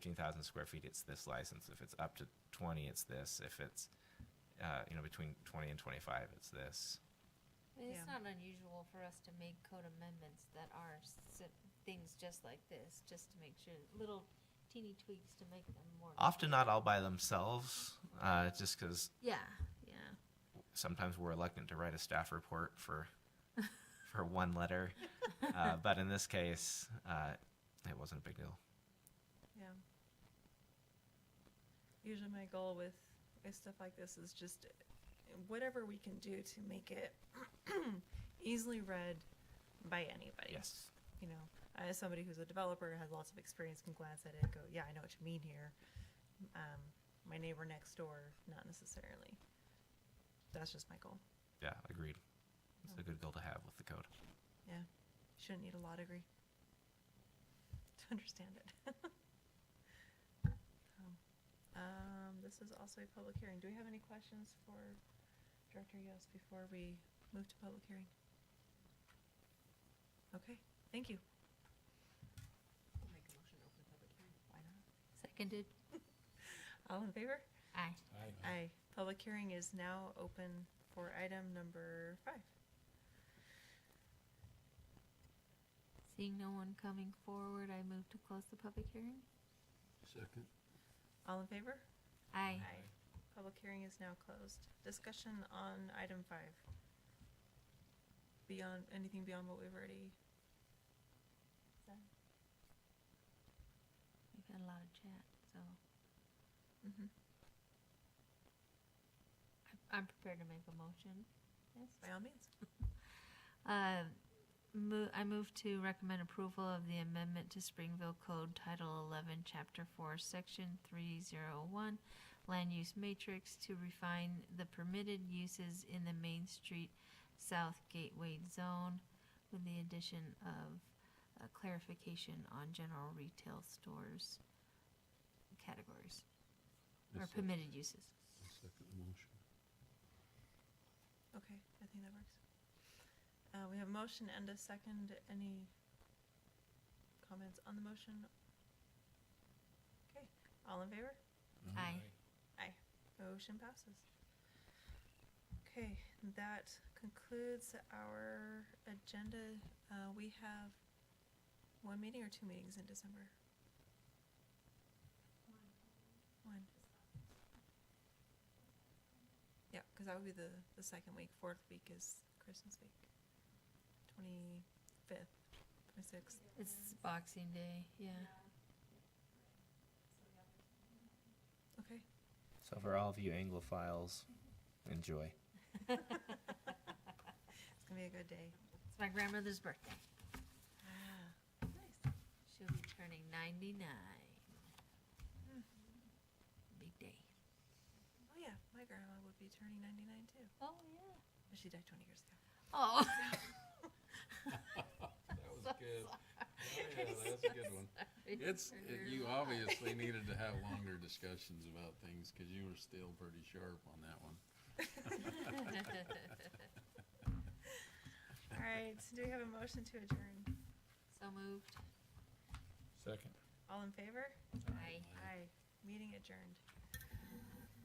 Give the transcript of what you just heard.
15,000 square feet, it's this license. If it's up to 20, it's this. If it's, uh, you know, between 20 and 25, it's this. I mean, It's Yeah. not unusual for us to make code amendments that are si- things just like this, just to make sure, little teeny tweaks to make them more. Often not all by themselves, uh, just because Yeah, yeah. sometimes we're reluctant to write a staff report for for one letter. Uh, but in this case, uh, it wasn't a big deal. Yeah. Usually my goal with, with stuff like this is just whatever we can do to make it easily read by anybody. Yes. You know, as somebody who's a developer, has lots of experience, can glance at it and go, yeah, I know what you mean here. Um, my neighbor next door, not necessarily. That's just my goal. Yeah, agreed. It's a good goal to have with the code. Yeah. Shouldn't need a law degree to understand it. So, Um, this is also a public hearing. Do we have any questions for Director Yost before we move to public hearing? Okay, thank you. Make a motion to open the public hearing. Why not? Seconded. All in favor? Aye. Aye. Public hearing is now open for item number five. Seeing no one coming forward, I move to close the public hearing. Second. All in favor? Aye. Public hearing is now closed. Discussion on item five. Beyond, anything beyond what we've already said? We've had a lot of chat, so Mhm. I- I'm prepared to make a motion. Yes. By all means. Uh, mo- I move to recommend approval of the amendment to Springville Code Title 11, Chapter 4, Section 301, Land Use Matrix to refine the permitted uses in the Main Street South Gateway Zone with the addition of uh, clarification on general retail stores categories or permitted uses. Second the motion. Okay, I think that works. Uh, we have a motion and a second. Any comments on the motion? Okay, all in favor? Mm-hmm. Aye. Motion passes. Okay, that concludes our agenda. Uh, we have one meeting or two meetings in December? One. Yeah, because that would be the, the second week. Fourth week is Christmas week. Twenty-fifth, twenty-sixth. It's Boxing Day, yeah. Okay, So for all of you Anglophiles, enjoy. it's gonna be a good day. It's my grandmother's birthday. Ah, She'll be turning 99. Big day. Oh yeah, my grandma would be turning ninety-nine too. Oh, yeah. But she died twenty years ago. Oh. That was good. Oh, Sorry. yeah, that's a good one. It's, it- you obviously needed to have longer discussions about things because you were still pretty sharp on that one. All right, do we have a motion to adjourn? so moved. Second. All in favor? Aye. Aye. Meeting adjourned.